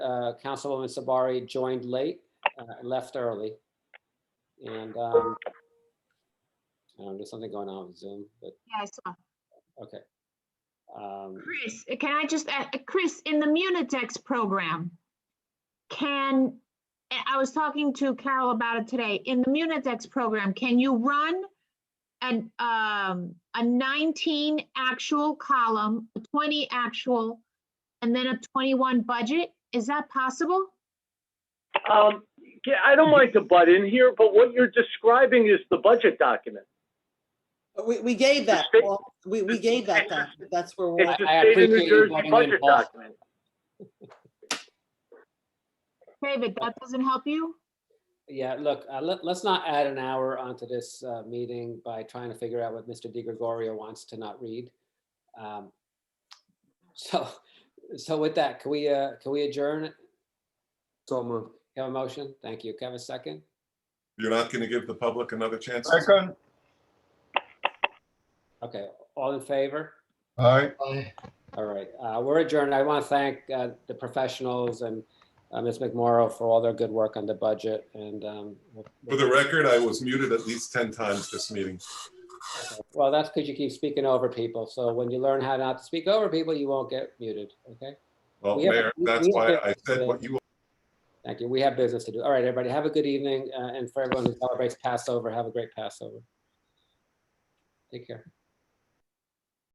uh, Councilwoman Sabari joined late, uh, left early. And um, I don't know, there's something going on with Zoom, but, Yeah, I saw. okay. Um, Chris, can I just, add- Chris, in the Munitex program, can, I I was talking to Carol about it today. In the Munitex program, can you run an, um, a 19 actual column, a 20 actual, and then a 21 budget? Is that possible? Um, yeah, I don't like to butt in here, but what you're describing is the budget document. We, we gave that, state- Paul. we, we gave that back. That's where we're It's at. the I- I state of appreciate New you butting Jersey in, budget Paul. document. David, that doesn't help you? Yeah, look, uh, let, let's not add an hour onto this uh, meeting by trying to figure out what Mr. Di Gregorio wants to not read. Um, So, so with that, can we, uh, can we adjourn? So moved. Have a motion? Thank you. Can I Have a second? You're not going to give the public another chance? to- Second, Okay, all in favor? aye. All right, uh, we're adjourned. I want to thank uh, the professionals and uh, Ms. McMorro for all their good work on the budget and um, For the record, I was muted at least 10 times this meeting. well, that's because you keep speaking over people. So when you learn how not to speak over people, you won't get muted, okay? Well, We have- Mayor, we- that's we why have- I said what you, Thank you. We have business to do. All right, everybody, have a good evening. uh, And for everyone who celebrates Passover, have a great Passover. Take care.